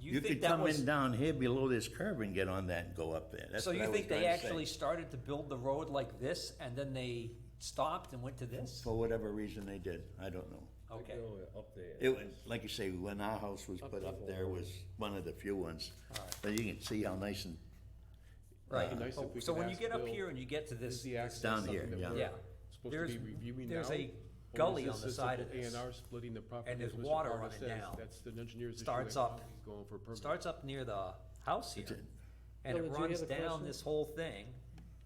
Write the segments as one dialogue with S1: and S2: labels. S1: You
S2: think
S1: could
S2: that
S1: come
S2: was-
S1: in down here below this curb and get on that and go up there. That's
S2: So
S1: what I
S2: you
S1: was
S2: think they
S1: trying to say.
S2: actually started to build the road like this and then they stopped and went to this?
S1: For whatever reason they did, I don't know.
S2: Okay,
S3: Up there.
S1: It was, like you say, when our house was put up there was one of the few ones. But you can see how nice and,
S2: right.
S3: It'd be nice if we
S2: So
S3: could
S2: when you
S3: ask
S2: get up
S3: Bill,
S2: here and you get to
S3: Is
S2: this,
S3: the access
S1: Down
S3: something
S1: here,
S3: that
S1: yeah.
S3: we're
S2: Yeah.
S3: Supposed
S2: There's-
S3: to be reviewing now?
S2: there's a
S3: or is
S2: gully
S3: this
S2: on the
S3: just
S2: side
S3: an
S2: of this,
S3: A&R splitting the property?
S2: and
S3: as
S2: there's
S3: Mr.
S2: water
S3: Carter
S2: on it
S3: says,
S2: now.
S3: That's the engineer's issue.
S2: Starts
S3: right
S2: up-
S3: now, he's Going for a permit.
S2: starts up near the house here. And
S4: Bill,
S2: it
S4: did you have
S2: runs
S4: a
S2: down
S4: question?
S2: this whole thing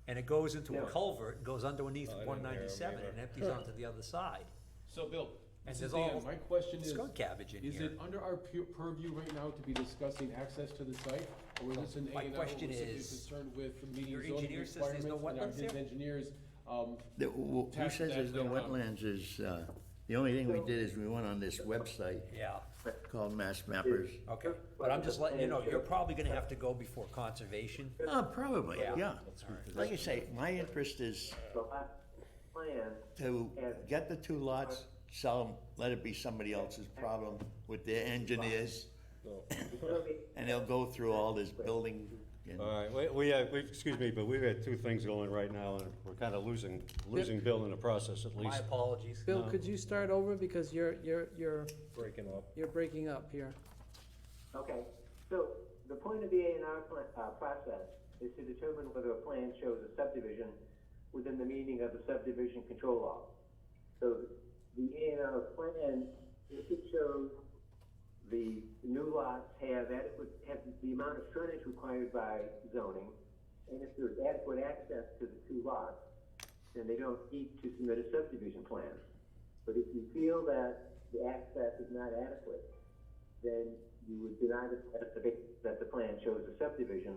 S2: and it goes into a culvert, goes underneath
S3: Oh, I didn't hear
S2: one
S3: him
S2: ninety-seven
S3: either.
S2: and empties onto the other side.
S3: So Bill,
S2: And
S3: this
S2: there's
S3: is
S2: all
S3: Dan, my question is,
S2: Skunk cabbage in
S3: is
S2: here.
S3: it under our pu- purview right now to be discussing access to the site? Or is this an A
S2: my
S3: and R,
S2: question is,
S3: concerned with meeting
S2: your
S3: zoning
S2: engineer says there's
S3: requirements
S2: no
S3: and our
S2: wetlands here?
S3: his engineers, um,
S1: the- who who
S3: Tax
S1: says there's no
S3: that later on.
S1: wetlands is, uh, the only thing we did is we went on this website
S2: Yeah,
S1: called Mass Mappers.
S2: okay. But I'm just letting you know, you're probably gonna have to go before conservation.
S1: Oh, probably,
S2: Yeah.
S1: yeah. Like you say, my interest is
S5: So my plan,
S1: to get the two lots, sell them, let it be somebody else's problem with their engineers, and they'll go through all this building. and-
S6: All right, we- we, uh, we, excuse me, but we've had two things going right now, and we're kind of losing, losing Bill in the process at
S2: My
S6: least.
S2: apologies.
S4: Bill, could you start over because you're, you're, you're. Breaking up. You're breaking up here.
S5: okay, so the point of the A and R pla uh, process is to determine whether a plan shows a subdivision within the meaning of the subdivision control law. So the A and R plan, if it shows the new lots have adequate, have the amount of frontage required by zoning, and if there's adequate access to the two lots, then they don't need to submit a subdivision plan. But if you feel that the access is not adequate, then you would deny the, that the, that the plan shows a subdivision,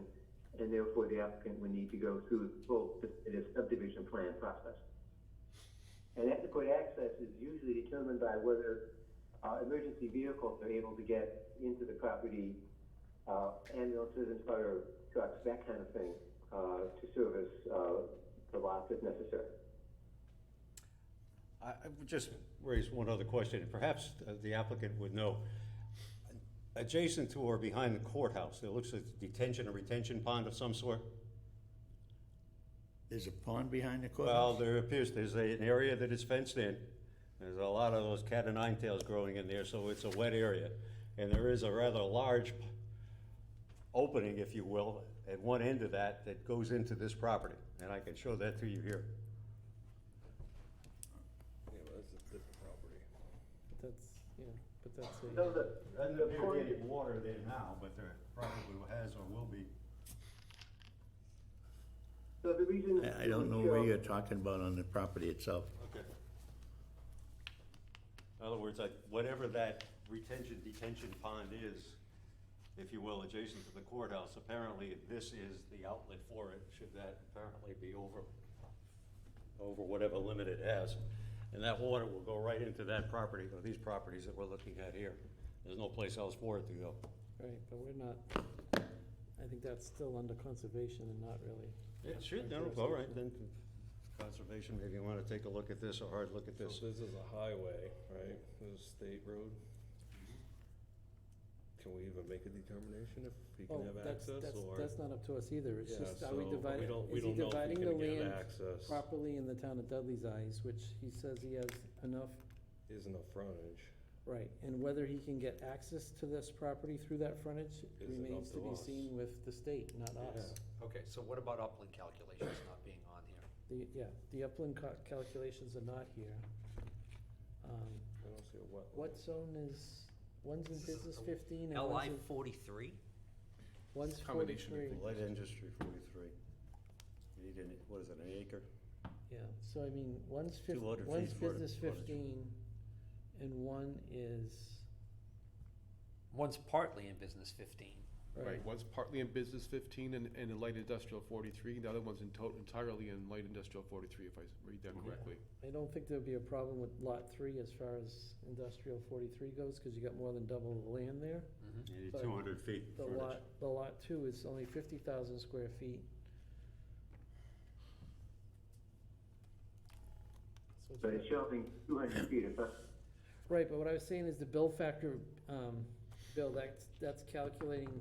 S5: and therefore the applicant would need to go through the full, the subdivision plan process. And adequate access is usually determined by whether, uh, emergency vehicles are able to get into the property, uh, ambulances and fire trucks, that kind of thing, uh, to service, uh, the lots if necessary.
S6: I, I would just raise one other question, and perhaps uh, the applicant would know. Adjacent to or behind the courthouse, there looks like detention or retention pond of some sort?
S1: There's a pond behind the
S6: Well,
S1: courthouse?
S6: there appears, there's a- an area that is fenced in. There's a lot of those cat and nine tails growing in there, so it's a wet area. And there is a rather large p- opening, if you will, at one end of that that goes into this property. And I can show that to you here.
S4: But that's, yeah, but that's a.
S5: So the,
S6: Doesn't
S5: the
S6: appear to
S5: point
S6: be any water there now, but there probably has or will be.
S5: So the reason.
S1: I I don't know
S5: we
S1: where
S5: show-
S1: you're talking about on the property itself.
S6: Okay. In other words, like, whatever that retention detention pond is, if you will, adjacent to the courthouse, apparently this is the outlet for it, should that apparently be over, over whatever limit it has. And that water will go right into that property, or these properties that we're looking at here. There's no place else for it to go.
S4: Right, but we're not, I think that's still under conservation and not really.
S6: It should, no, all right, then conservation, maybe you wanna take a look at this, a hard look at
S3: so
S6: this.
S3: this is a highway, right, this is a state road? Can we even make a determination if he
S4: Oh,
S3: can have
S4: that's,
S3: access
S4: that's,
S3: or?
S4: that's not up to us either, it's
S3: Yeah,
S4: just, are
S3: so,
S4: we
S3: but
S4: dividing,
S3: don't- we
S4: is he
S3: don't know if
S4: dividing
S3: can
S4: the
S3: get
S4: land
S3: access.
S4: properly in the town of Dudley's eyes, which he says he has enough,
S3: Is enough frontage,
S4: right, and whether he can get access to this property through that frontage
S3: Is it up
S4: remains
S3: to
S4: to be
S3: us?
S4: seen with the state, not us.
S2: Okay, so what about upland calculations not being on here?
S4: The, yeah, the upland ca- calculations are not here. Um,
S3: I don't see a wetland.
S4: What zone is, one's in business fifteen and one's
S2: LI
S4: in,
S2: forty-three?
S4: one's
S3: Combination of
S4: forty-three.
S6: Light industry forty-three. You need an, what is it, an acre?
S4: Yeah, so I mean, one's fif-
S6: 200
S4: one's
S6: feet for it,
S4: business
S6: for it.
S4: fifteen and one is,
S2: One's partly in business fifteen.
S4: right,
S3: Right, one's partly in business fifteen and, and in light industrial forty-three, the other one's in to- entirely in light industrial forty-three, if I s- read that correctly.
S4: I don't think there'd be a problem with lot three as far as industrial forty-three goes, cause you got more than double the land there.
S6: You need
S4: But
S6: two hundred feet
S4: The
S6: frontage.
S4: lot, the lot two is only fifty thousand square feet. So it's
S5: But
S4: not-
S5: it's showing two hundred feet of,
S4: Right, but what I was saying is the bill factor, um, Bill, that's, that's calculating